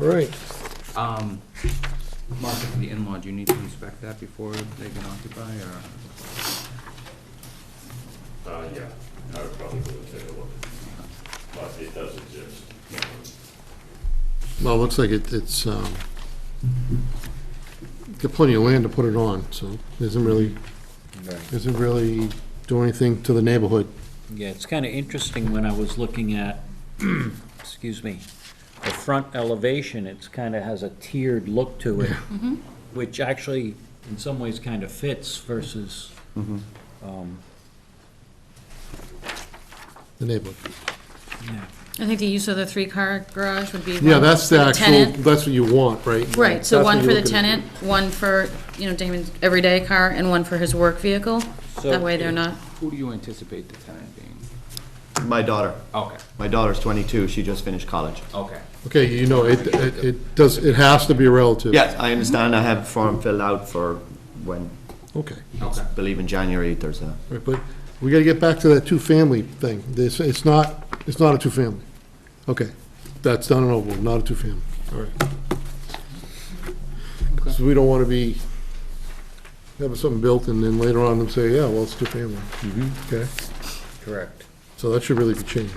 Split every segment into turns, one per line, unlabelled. All right,
Um, Mark, for the in-law, do you need to inspect that before they can occupy, or?
Uh, yeah, I would probably go and take a look, but it does exist.
Well, it looks like it- it's, um, got plenty of land to put it on, so isn't really, isn't really do anything to the neighborhood.
Yeah, it's kind of interesting when I was looking at, excuse me, the front elevation, it's kind of has a tiered look to it, which actually, in some ways, kind of fits versus, um,
The neighborhood.
yeah.
I think the use of the three-car garage would be.
Yeah,
one
that's the
for
actual,
tenant.
that's what you want, right?
Right, so
That's
one
what
for
you're
the
looking at.
tenant, one for, you know, Damon's everyday car, and one for his work vehicle.
So-
That way they're not,
Who do you anticipate the tenant being?
My daughter.
Okay,
My daughter's 22. She just finished college.
okay.
Okay, you know, it, it it does, it has to be a relative.
Yes, I understand. I have a form filled out for when,
Okay.
I believe in January, there's a,
Right, but we gotta get back to that two-family thing. This, it's not, it's not a two-family. Okay, that's done and over, with, not a two-family. All right. Because we don't wanna be, having something built and then later on them say, yeah, well, it's two-family. Okay,
Correct.
so that should really be changed.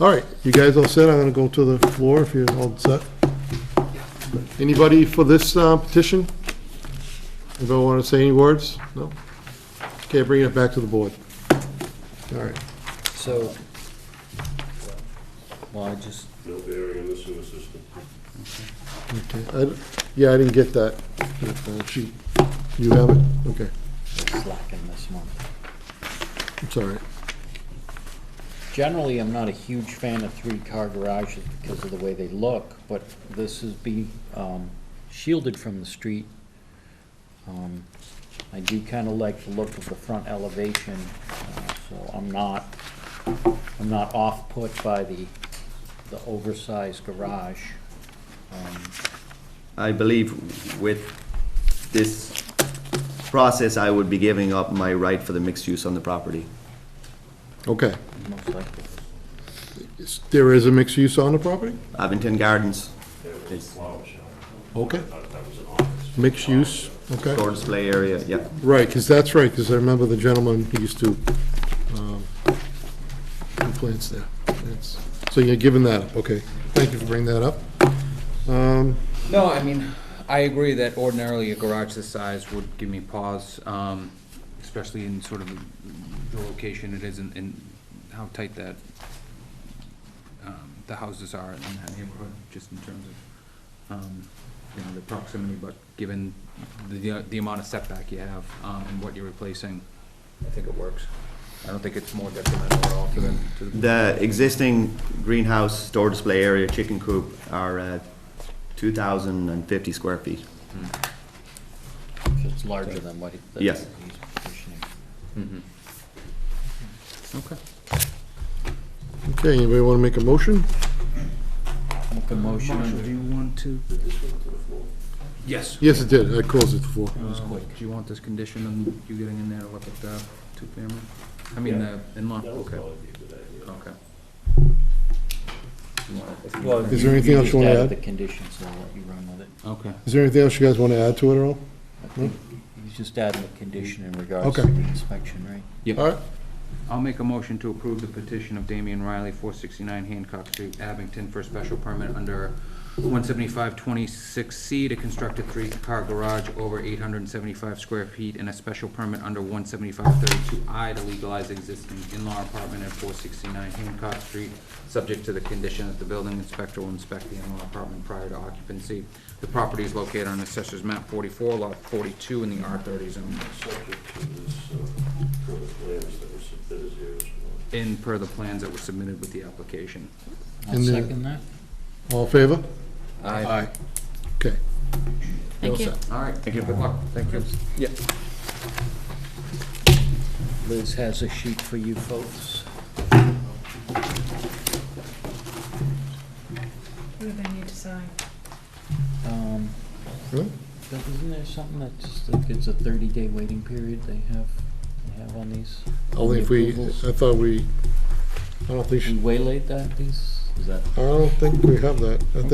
All right, you guys all set? I'm gonna go to the floor if you're all set. Anybody for this uh, petition? Anybody wanna say any words? No? Okay, bring it back to the board. All right.
So, well, I just,
No bearing on the sewer system.
Okay, I d- Yeah, I didn't get that, that uh, sheet. You have it? Okay,
slacking this one.
I'm sorry.
Generally, I'm not a huge fan of three-car garages because of the way they look, but this is be um, shielded from the street. Um, I do kind of like the look of the front elevation, uh, so I'm not, I'm not off-put by the, the oversized garage. Um,
I believe with this process, I would be giving up my right for the mixed use on the property.
Okay.
Most likely.
Is- There is a mixed use on the property?
Abington Gardens,
Okay. Mixed use, okay.
store display area, yeah.
Right, because that's right, because I remember the gentleman who used to, um, do plants there. That's- So you're giving that up, okay. Thank you for bringing that up. Um,
No, I mean, I agree that ordinarily a garage this size would give me pause, um, especially in sort of the location it is and, and how tight that, um, the houses are in that neighborhood, just in terms of, um, you know, the proximity, but given the, the amount of setback you have, um, and what you're replacing, I think it works. I don't think it's more detrimental at all to the, to the,
The existing greenhouse, store display area, chicken coop are uh, 2,050 square feet.
So It's larger than what he- that
Yes.
he's petitioning.
okay.
Okay, anybody want to make a motion?
Make a motion
Marshall, do
under,
you want to? Yes.
Yes, it did, I closed it before.
was
Um,
quick.
Do you want this condition on you getting in there to look at the two-family? I mean, the in-law, okay, okay. You want it?
well,
Is there anything else
just
you wanna
added
add?
The conditions, so I'll let you run with it.
Okay.
Is there anything else you guys want to add to it at all?
I think He's just adding a condition in regards
Okay.
to the inspection, right?
All right,
I'll make a motion to approve the petition of Damian Riley, four sixty-nine Hancock Street, Abington, for a special permit under one seventy-five twenty-six C to construct a three-car garage over eight hundred and seventy-five square feet, and a special permit under one seventy-five thirty-two I to legalize existing in-law apartment at four sixty-nine Hancock Street, subject to the condition that the building inspector will inspect the in-law apartment prior to occupancy. The property is located on Assessor's Map forty-four, lot forty-two, in the R thirty zone,
Subject to this, uh, current plans that were submitted here as well.
in per the plans that were submitted with the application.
I'll
And the-
second that.
all in favor?
Aye.
Okay.
thank you.
All right. Thank you. Good luck. Thank you.
Liz has a sheet for you folks.
Who do they need to sign?
Um,
Really?
but Isn't there something that just, that it's a 30-day waiting period they have, they have on these?
Only Oh, if we, uh,
approvals?
I thought we, I don't think,
We
she-
waylaid that, these? Is that?
I don't think we have that. I think